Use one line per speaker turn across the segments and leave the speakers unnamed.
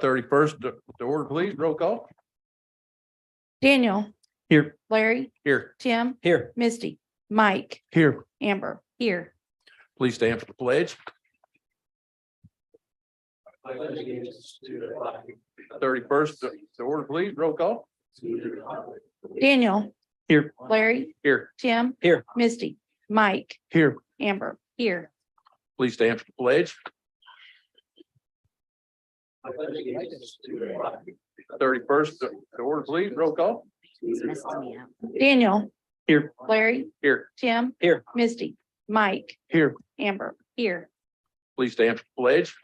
thirty-first, the the order please, roll call.
Daniel,
Here.
Larry,
Here.
Tim,
Here.
Misty, Mike,
Here.
Amber, here.
Please stand for the pledge. Thirty-first, the order please, roll call.
Daniel.
Here.
Larry,
Here.
Tim.
Here.
Misty, Mike,
Here.
Amber, here.
Please stand for the pledge. Thirty-first, the order please, roll call.
Daniel.
Here.
Larry,
Here.
Tim.
Here.
Misty, Mike,
Here.
Amber, here.
Please stand for the pledge.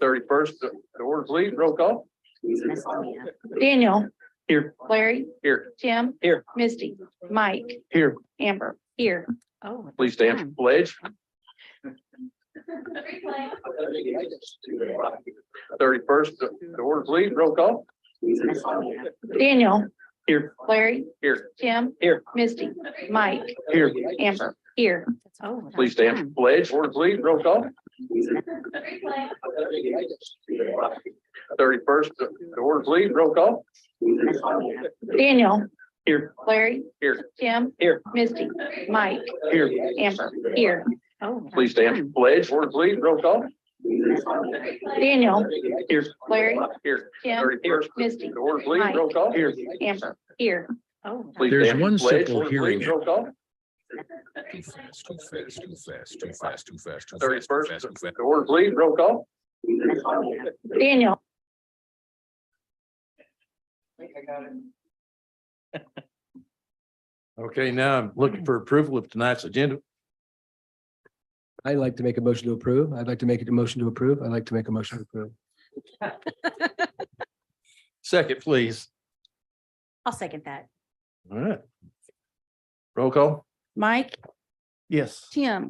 Thirty-first, the order please, roll call.
Daniel.
Here.
Larry,
Here.
Tim.
Here.
Misty, Mike,
Here.
Amber, here. Oh.
Please stand for the pledge. Thirty-first, the order, please, roll call.
Daniel.
Here.
Larry,
Here.
Tim.
Here.
Misty, Mike,
Here.
Amber, here.
oh,
Please stand for the pledge. Order, please, roll call. Thirty-first, the order, please, roll call.
Daniel.
Here.
Larry.
Here.
Tim.
Here.
Misty, Mike,
Here.
Amber, here.
Oh,
Hmm.
Please stand for the pledge. Order, please, roll call.
Daniel.
Here.
Larry.
Here.
Tim.
Thirty-first,
Misty,
the order, please, roll call. Here.
Amber, here. Oh.
Please
There's
stand for
one
the pledge.
simple
Order,
hearing
please, Roll call.
Too fast, too fast, too fast, too fast, too fast, too fast, too
Thirty-first,
fast, too fast.
the order, please, roll call.
Daniel.
Okay, now I'm looking for approval of tonight's agenda.
I'd like to make a motion to approve. I'd like to make a motion to approve. I'd like to make a motion to approve.
Second, please.
I'll second that.
All right. Roll call.
Mike,
Yes.
Tim.